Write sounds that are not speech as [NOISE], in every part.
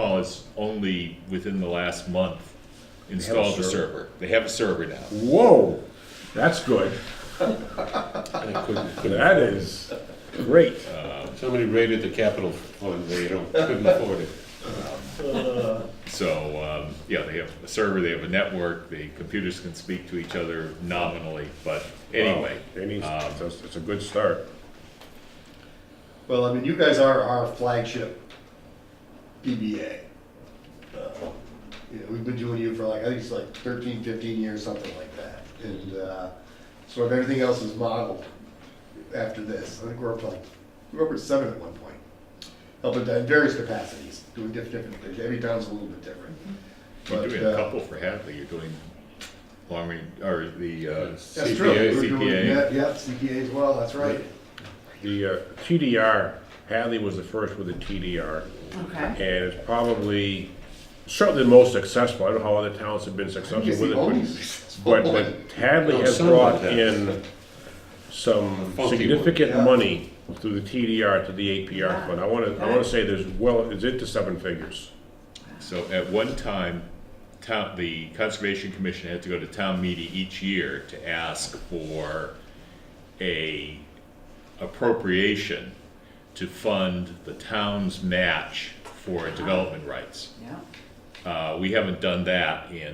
Laws only within the last month installed the server. server. They have a server now. Whoa, that's good. I couldn't- couldn't- That is great. Uh, Somebody raided the capital fund, they don't, couldn't afford it. So, um, yeah, they have a server, they have a network, the computers can speak to each other nominally, but anyway. Wow, it needs- um, It's a- it's a good start. Well, I mean, you guys are our flagship BBA. Uh, You know, we've been doing you for like, I think it's like 13, 15 years, something like that. And uh, sort of everything else is modeled after this. I think we're up to like, we were up at seven at one point. Helping in various capacities, doing diff- different things. Every town's a little bit different. You're But, doing a uh, couple for Hadley, you're doing long range, or the uh, That's true. CPA, We were doing CPA. that, Yeah, CPA as well, that's right. The uh, TDR, Hadley was the first with a TDR, and Okay. it's probably certainly the most successful. I don't know how other towns have been I successful think it's with the it, only but- successful but, one. but Hadley No, has some of brought that. in some funky one. significant Yeah. money through the TDR to the APR Yeah. fund. I want to, I want to say there's well, it's into seven figures. So at one time, town, the Conservation Commission had to go to town meeting each year to ask for a appropriation to fund the town's match for development rights. Yeah, Uh, we haven't done that in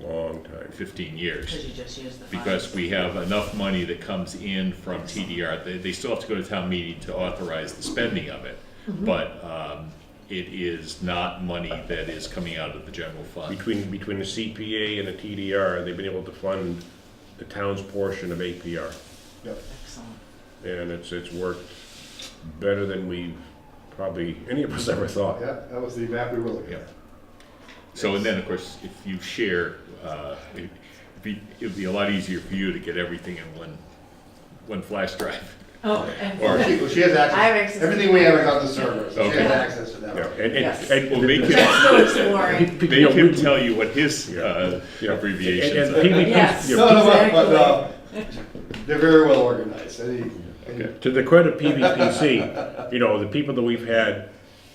Long time. fifteen years. because you just used the funds. because we have enough money that comes in from TDR. They, they still have to go to town meeting to authorize the spending of it. But, um, it is not money that is coming out of the general fund. Between, between the CPA and the TDR, they've been able to fund the town's portion of APR. Yep. Excellent. and it's, it's worked better than we probably, any of us ever thought. Yeah, that was the map we were looking Yep. at. So, and then, of course, if you share, uh, it'd be, it'd be a lot easier for you to get everything in one, one flash drive. Oh, Or- and She, well, she has access. I have access to Everything we have is on the server, so she Okay. has access to that. Yeah, and, Yes. and, and. Well, make it- [LAUGHS] that's so exploring. They can tell you what his, Yeah. uh, Yeah. abbreviations And- are. and PVPs Yes. yeah, No, no, but, but, Exactly. uh, they're very well organized. Any, any, To the credit of PVPC, you know, the people that we've had,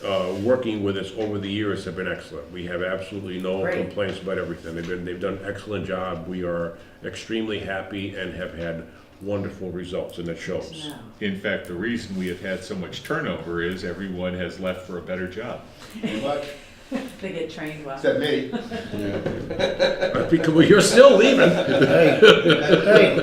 uh, working with us over the years have been excellent. We have absolutely no Great. complaints about everything. They've been, they've done an excellent job. We are extremely happy and have had wonderful results, and it shows. No. In fact, the reason we have had so much turnover is everyone has left for a better job. but, They get trained well. except me. [LAUGHS] Because, well, you're still leaving. Hey,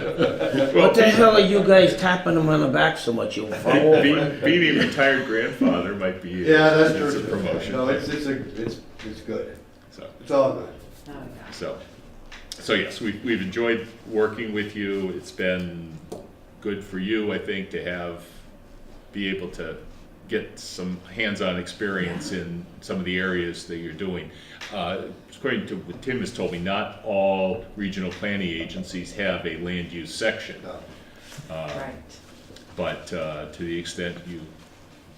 what the hell are you guys tapping him on the back so much, you'll fall Be- over? be- Being a retired grandfather might be. Yeah, that's true. It's a promotion. No, it's, it's a, it's, it's good. So, It's all good. Oh, yeah. so, so yes, we've, we've enjoyed working with you. It's been good for you, I think, to have, be able to get some hands-on experience in some of the areas that you're doing. Uh, According to what Tim has told me, not all regional planning agencies have a land use section. No. Uh, Right. But uh, to the extent you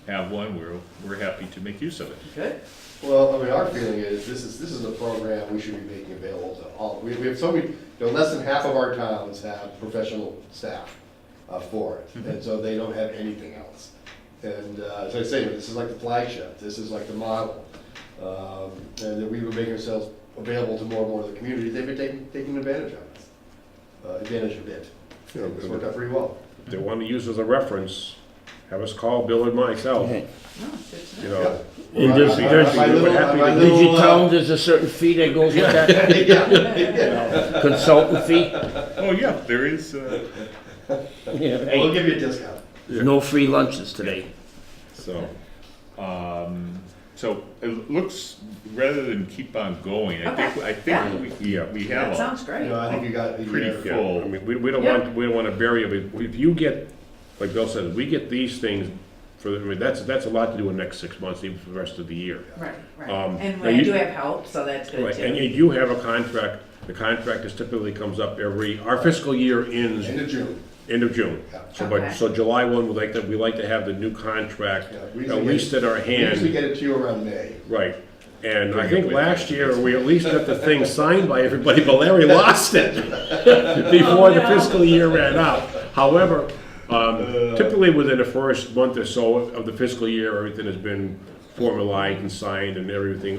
have one, we're, we're happy to make use of it. Good. Well, I mean, our feeling is, this is, this is a program we should be making available to all, we, we have so many, you know, less than half of our towns have professional staff uh, for it, and so they don't have anything else. And, uh, as I say, this is like the flagship, this is like the model, um, and that we would make ourselves available to more and more of the community, they've been taking, taking advantage of us, uh, advantage of it. You know, It's worked out pretty well. If they want to use as a reference, have us call Bill and myself, No, good to you know. know. And there's- My- my- there's- my little- we're happy my to- Did you little, uh, tell him there's a certain fee that goes with that, Yeah, yeah. consultant [LAUGHS] fee? Oh, yeah, there is, uh, Yeah, We'll hey, give you a discount. no free lunches today. So, Um, so it looks, rather than keep on going, I think, I think we, Yeah. we That have a sounds You great. know, I think you got. uh, you pretty got- yeah, I full, mean, we, we don't want, we don't want to bury it, but if you get, like Bill said, we get these things for, the- I mean, that's, that's a lot to do in the next six months, even for the rest of the year. Right, right. Um, And now we you- do have help, so that's good Right, and too. you do have a contract, the contract is typically comes up every, our fiscal year ends End of June. end of June. Yeah. So, but, Okay. so July one, we like to, we like to have the new contract Yeah, we usually at get- least at our We hand. usually get it to you around May. Right, and I Bring it think with last you. year, we at least got [LAUGHS] the thing signed by everybody, but Larry lost it before the Oh, no. fiscal year ran out. However, Uh. um, typically within the first month or so of the fiscal year, everything has been formalized and signed and everything